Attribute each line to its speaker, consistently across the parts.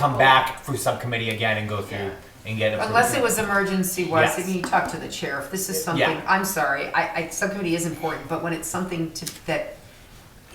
Speaker 1: come back through subcommittee again and go through and get approved.
Speaker 2: Unless it was emergency, Wes,
Speaker 1: Yes.
Speaker 2: if you talk to the chair, if this is
Speaker 1: Yeah.
Speaker 2: something, I'm sorry, I, I, subcommittee is important, but when it's something to, that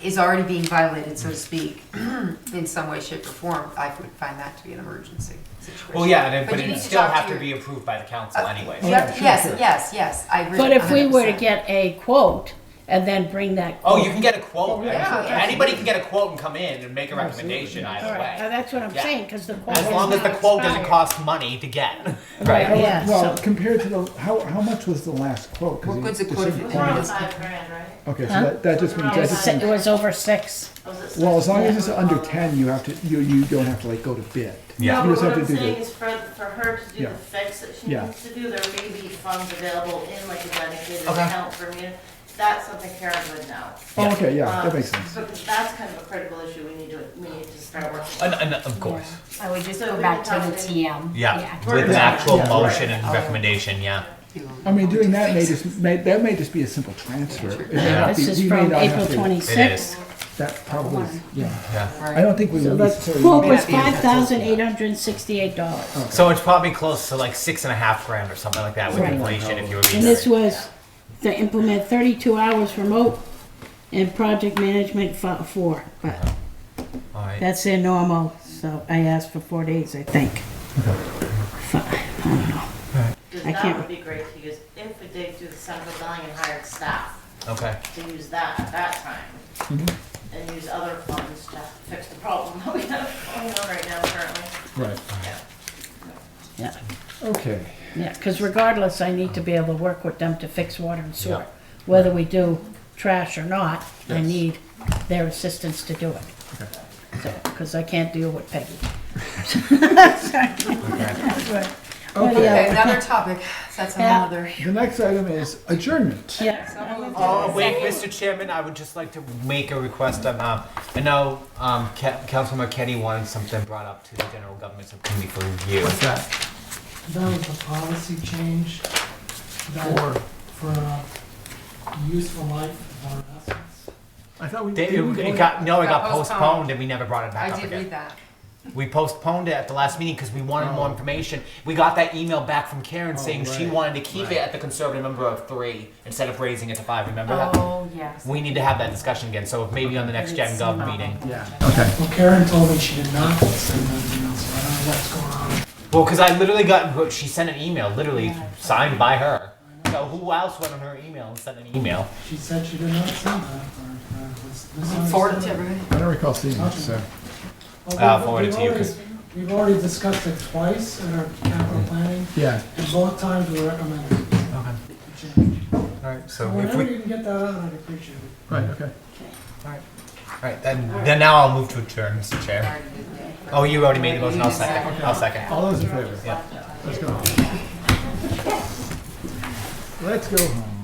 Speaker 2: is already being violated, so to speak, in some way, shape, or form, I would find that to be an emergency situation.
Speaker 1: Well, yeah, and it- but
Speaker 2: you
Speaker 1: it
Speaker 2: need to
Speaker 1: still
Speaker 2: talk
Speaker 1: have to
Speaker 2: your-
Speaker 1: be approved by the council
Speaker 2: uh,
Speaker 1: anyway.
Speaker 2: you have to- yes, yes, yes, I agree.
Speaker 3: But if we were to
Speaker 2: 100%.
Speaker 3: get a quote and then bring that.
Speaker 1: Oh, you can get a quote.
Speaker 2: Yeah,
Speaker 1: Anybody- Anybody can get a quote and come in and make a recommendation either
Speaker 3: All right, now
Speaker 1: way.
Speaker 3: that's what I'm
Speaker 1: Yeah.
Speaker 3: saying, because the quote
Speaker 1: As
Speaker 3: is
Speaker 1: long as the
Speaker 3: not
Speaker 1: quote doesn't
Speaker 3: expired.
Speaker 1: cost money to get.
Speaker 3: Right, yeah,
Speaker 4: Well,
Speaker 3: so-
Speaker 4: compared to the, how, how much was the last quote? 'Cause
Speaker 2: What
Speaker 4: he-
Speaker 2: good's a
Speaker 4: it
Speaker 2: quote if
Speaker 4: said
Speaker 2: it's
Speaker 4: quote-
Speaker 2: not-
Speaker 5: five grand, right?
Speaker 4: Okay, so
Speaker 3: Huh?
Speaker 4: that, that just means,
Speaker 3: It
Speaker 4: that
Speaker 3: was
Speaker 4: just
Speaker 3: si- it
Speaker 4: means,
Speaker 3: was over six.
Speaker 5: Was it
Speaker 4: well, as long as it's
Speaker 5: six?
Speaker 4: under ten, you have to, you, you don't have to like go to bid.
Speaker 5: No,
Speaker 4: You
Speaker 5: but
Speaker 4: just
Speaker 5: what
Speaker 4: have
Speaker 5: I'm
Speaker 4: to do
Speaker 5: saying
Speaker 4: the,
Speaker 5: is for, for her to do
Speaker 4: Yeah.
Speaker 5: the fix that she
Speaker 4: Yeah.
Speaker 5: needs to do, there may be funds available in like a dedicated
Speaker 1: Okay.
Speaker 5: account for me. That's something Karen would know.
Speaker 4: oh, okay, yeah, that
Speaker 5: Um,
Speaker 4: makes sense.
Speaker 5: Because that's kind of a critical issue we need to, we need to start working. on.
Speaker 1: And, and of course,
Speaker 6: I would just
Speaker 5: So
Speaker 6: go
Speaker 5: we
Speaker 6: back
Speaker 5: can
Speaker 6: to the
Speaker 5: probably-
Speaker 6: TM.
Speaker 1: yeah,
Speaker 6: Yeah.
Speaker 1: with an actual
Speaker 4: Yeah.
Speaker 1: motion and recommendation, yeah.
Speaker 2: uh,
Speaker 4: I mean, doing that may just, may, that may just be a simple transfer. It may not be-
Speaker 3: This is
Speaker 4: you may
Speaker 3: from
Speaker 4: not have
Speaker 3: April
Speaker 4: to-
Speaker 1: It
Speaker 3: twenty-sixth.
Speaker 1: is,
Speaker 4: That probably, is- yeah.
Speaker 1: yeah.
Speaker 4: I don't think we
Speaker 3: So
Speaker 4: would
Speaker 3: the
Speaker 4: necessarily.
Speaker 3: quote
Speaker 4: need
Speaker 3: was
Speaker 4: to-
Speaker 3: five thousand eight hundred and sixty-eight dollars.
Speaker 1: So it's probably close to like six and a half grand or something like that with
Speaker 3: Right.
Speaker 1: inflation if you were
Speaker 3: And this
Speaker 1: being.
Speaker 3: was to implement thirty-two hours remote and project management fo- four, but
Speaker 1: Alright,
Speaker 3: that's their normal, so I asked for four days, I think. Five, I don't know.
Speaker 5: Because
Speaker 3: I
Speaker 5: that
Speaker 3: can't-
Speaker 5: would be great to use if we did do the central billing and hired staff
Speaker 1: okay.
Speaker 5: to use that at that time.
Speaker 4: Mm-hmm.
Speaker 5: And use other funds to fix the problem that we have going on right now currently.
Speaker 4: Right,
Speaker 5: Yeah.
Speaker 3: Yeah,
Speaker 4: okay,
Speaker 3: yeah, because regardless, I need to be able to work with them to fix water and
Speaker 1: Yeah.
Speaker 3: sewer. Whether we do trash or not, I
Speaker 4: Yes.
Speaker 3: need their assistance to do it. Because I can't deal with Peggy. Or the
Speaker 2: Okay,
Speaker 3: other.
Speaker 2: another topic, so that's
Speaker 3: Yeah.
Speaker 2: another.
Speaker 4: the next item is adjournment.
Speaker 3: Yeah,
Speaker 1: Oh, wait, Mr. Chairman, I would just like to make a request. Um, um, I know um, Ca- Councilmember Kenny wanted something brought up to the General Government Subcommittee for review.
Speaker 7: What's that? That was a policy change that, for uh, useful life of our assets.
Speaker 4: I thought we.
Speaker 1: They-
Speaker 4: did we
Speaker 1: It it
Speaker 4: vote?
Speaker 1: got, no, it
Speaker 2: Got
Speaker 1: got
Speaker 2: postponed.
Speaker 1: postponed and we never brought it back
Speaker 2: I
Speaker 1: up
Speaker 2: did read
Speaker 1: again.
Speaker 2: that.
Speaker 1: We postponed it at the last meeting because we wanted more information. We got that email back from Karen saying she
Speaker 4: right,
Speaker 1: wanted to keep it at the conservative number of three instead of raising it to five, remember that?
Speaker 6: Oh, yes.
Speaker 1: We need to have that discussion again, so maybe on the next Gen Gov meeting.
Speaker 4: Yeah, okay.
Speaker 7: Well, Karen told me she did not send that email, so I don't know what's going on.
Speaker 1: Well, because I literally got, she sent an email, literally signed by her. So who else went on her email and sent an email?
Speaker 7: She said she did not send uh, that, or, or was misunderstood.
Speaker 2: Forward to everybody.
Speaker 4: I don't recall seeing that, so.
Speaker 7: Well,
Speaker 1: I'll
Speaker 7: we've-
Speaker 1: forward it
Speaker 7: we've
Speaker 1: to you,
Speaker 7: already-
Speaker 1: 'cause-
Speaker 7: We've already discussed it twice in our capital planning,
Speaker 4: Yeah,
Speaker 7: and both times we recommended it.
Speaker 1: Okay, alright,
Speaker 7: So
Speaker 1: so if
Speaker 7: whenever
Speaker 1: we,
Speaker 7: you can get that out, I'd appreciate it.
Speaker 4: right, okay.
Speaker 1: alright, then, then now I'll move to adjourn, Mr. Chair. Oh, you already made the motion, I'll second, I'll second.
Speaker 4: All those in favor?
Speaker 1: Yeah.
Speaker 4: Let's go home. Let's go home.